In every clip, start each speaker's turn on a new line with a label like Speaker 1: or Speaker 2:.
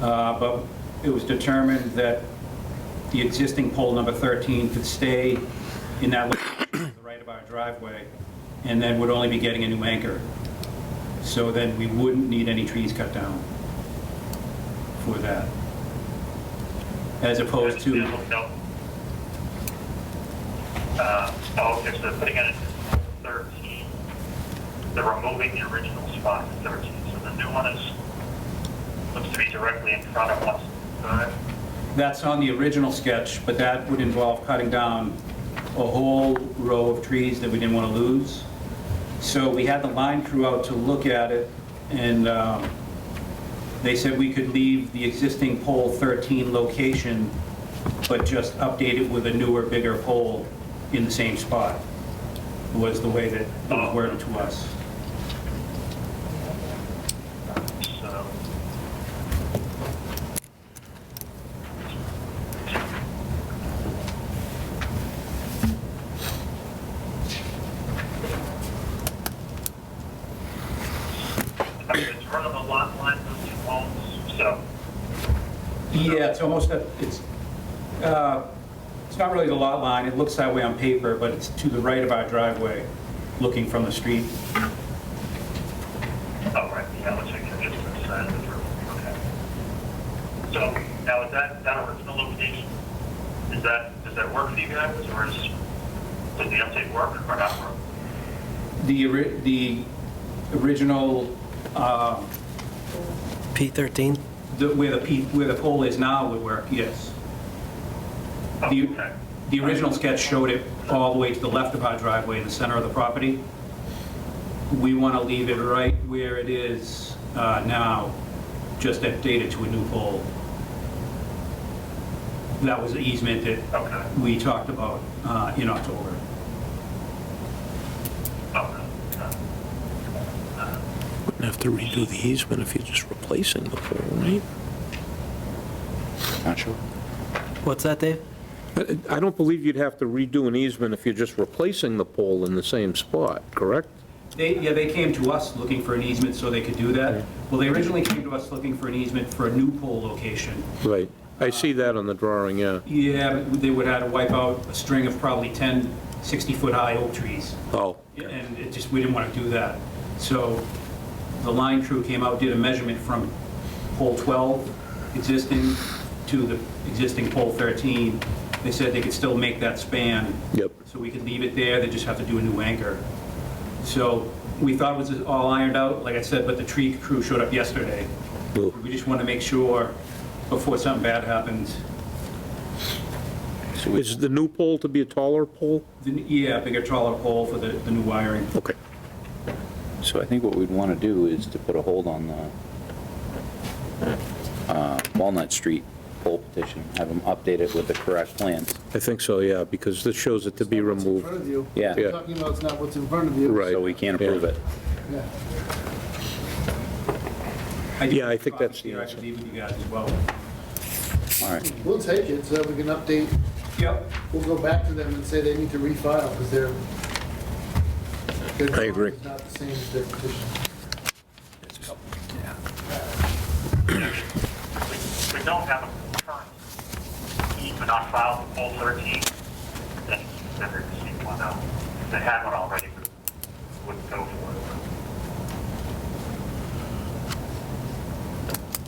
Speaker 1: Uh, But it was determined that the existing pole number 13 could stay in that location to the right of our driveway, and then would only be getting a new anchor. So then we wouldn't need any trees cut down for that. As opposed to...
Speaker 2: No, no. Uh, oh, okay, so they're putting in a 13. They're removing the original spot 13, so the new one is, looks to be directly in front of us. Uh,
Speaker 1: That's on the original sketch, but that would involve cutting down a whole row of trees that we didn't want to lose. So we had the line crew out to look at it, and um, they said we could leave the existing pole 13 location, but just update it with a newer, bigger pole in the same spot, was the way that it was worded to us.
Speaker 2: So. I mean, it's front of the lot line, those two homes, so.
Speaker 1: Yeah, it's almost, a- it's, uh, it's not really the lot line, it looks that way on paper, but it's to the right of our driveway, looking from the street.
Speaker 2: Oh, right, yeah, looks like they're just on the side of the road, okay. So now is that, that original location, is that, does that work for you guys, or is, does the update work or not work?
Speaker 1: The, ori- the original, uh,
Speaker 3: P13?
Speaker 1: the- where the, pe- where the pole is now would work, yes.
Speaker 2: Oh,
Speaker 1: The-
Speaker 2: okay.
Speaker 1: The original sketch showed it all the way to the left of our driveway in the center of the property. We want to leave it right where it is uh, now, just update it to a new pole. That was the easement that
Speaker 2: Okay,
Speaker 1: we talked about uh, in October.
Speaker 2: okay. okay. Uh,
Speaker 3: Wouldn't have to redo the easement if you're just replacing the pole, right?
Speaker 4: Not sure.
Speaker 3: What's that, Dave?
Speaker 5: I I don't believe you'd have to redo an easement if you're just replacing the pole in the same spot, correct?
Speaker 1: They, yeah, they came to us looking for an easement so they could do that. Well, they originally came to us looking for an easement for a new pole location.
Speaker 5: Right. I see that on the drawing, yeah.
Speaker 1: Yeah, but they would have to wipe out a string of probably 10 60-foot-high oak trees.
Speaker 5: Oh,
Speaker 1: And it just, we didn't want to do that. So the line crew came out, did a measurement from pole 12 existing to the existing pole 13. They said they could still make that span.
Speaker 5: Yep.
Speaker 1: So we could leave it there, they just have to do a new anchor. So we thought it was all ironed out, like I said, but the tree crew showed up yesterday.
Speaker 5: Ooh.
Speaker 1: We just want to make sure before something bad happens.
Speaker 5: Is the new pole to be a taller pole?
Speaker 1: The- Yeah, bigger taller pole for the, the new wiring.
Speaker 5: Okay.
Speaker 4: So I think what we'd want to do is to put a hold on the uh, Walnut Street poll petition, have them update it with the correct plans.
Speaker 5: I think so, yeah, because this shows it to be
Speaker 6: What's in
Speaker 5: removed.
Speaker 6: front of you.
Speaker 4: Yeah.
Speaker 6: You're talking about it's not what's in front of you.
Speaker 5: Right.
Speaker 4: So we can approve
Speaker 5: Yeah.
Speaker 4: it.
Speaker 6: Yeah.
Speaker 1: do
Speaker 5: Yeah, I
Speaker 1: have
Speaker 5: think
Speaker 1: copies
Speaker 5: that's the
Speaker 1: here I
Speaker 5: answer.
Speaker 1: could leave with you guys as well.
Speaker 4: All right.
Speaker 6: We'll take it so that we can update,
Speaker 1: Yep.
Speaker 6: we'll go back to them and say they need to refile because they're.
Speaker 5: I agree.
Speaker 6: It's not the same as their petition.
Speaker 2: We we don't have a current easement on file for pole 13, then then there's just one out. If they had one already, we wouldn't go for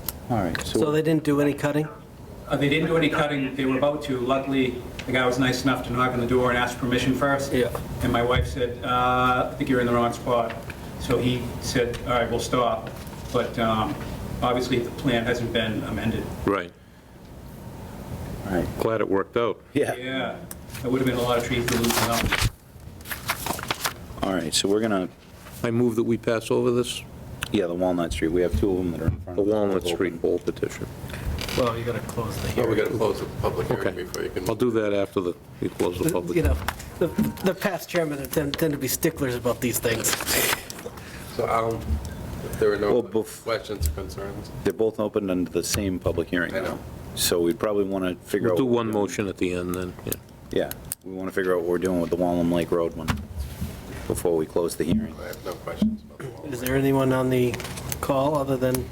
Speaker 2: it.
Speaker 4: All right.
Speaker 3: So they didn't do any cutting?
Speaker 1: Uh, They didn't do any cutting, they were about to. Luckily, the guy was nice enough to knock on the door and ask permission first.
Speaker 3: Yeah.
Speaker 1: And my wife said, uh, I think you're in the wrong spot. So he said, all right, we'll stop. But um, obviously, the plan hasn't been amended.
Speaker 5: Right.
Speaker 4: All right.
Speaker 5: Glad it worked out.
Speaker 4: Yeah.
Speaker 1: Yeah, there would have been a lot of trees to lose out.
Speaker 4: All right. So we're going to,
Speaker 5: I move that we pass over this,
Speaker 4: yeah, the Walnut Street. We have two of them that are in front
Speaker 5: the
Speaker 4: of us.
Speaker 5: Walnut Street pole petition.
Speaker 3: Well, you gotta close the
Speaker 7: Well, we
Speaker 3: hearing.
Speaker 7: gotta close the public hearing
Speaker 5: Okay.
Speaker 7: before you can.
Speaker 5: I'll do that after the, we close the public.
Speaker 3: Uh, You know, the, the past chairmen have tend tend to be sticklers about these things.
Speaker 7: So I'll, if there are no
Speaker 4: Well, bef-
Speaker 7: questions or concerns,
Speaker 4: They're both open under the same public hearing.
Speaker 7: I know.
Speaker 4: So we'd probably want to figure
Speaker 5: We'll
Speaker 4: out.
Speaker 5: do one motion at the end then, yeah.
Speaker 4: Yeah. We want to figure out what we're doing with the Walnut Lake Road one before we close the hearing.
Speaker 7: I have no questions about the wall.
Speaker 3: Is there anyone on the call other than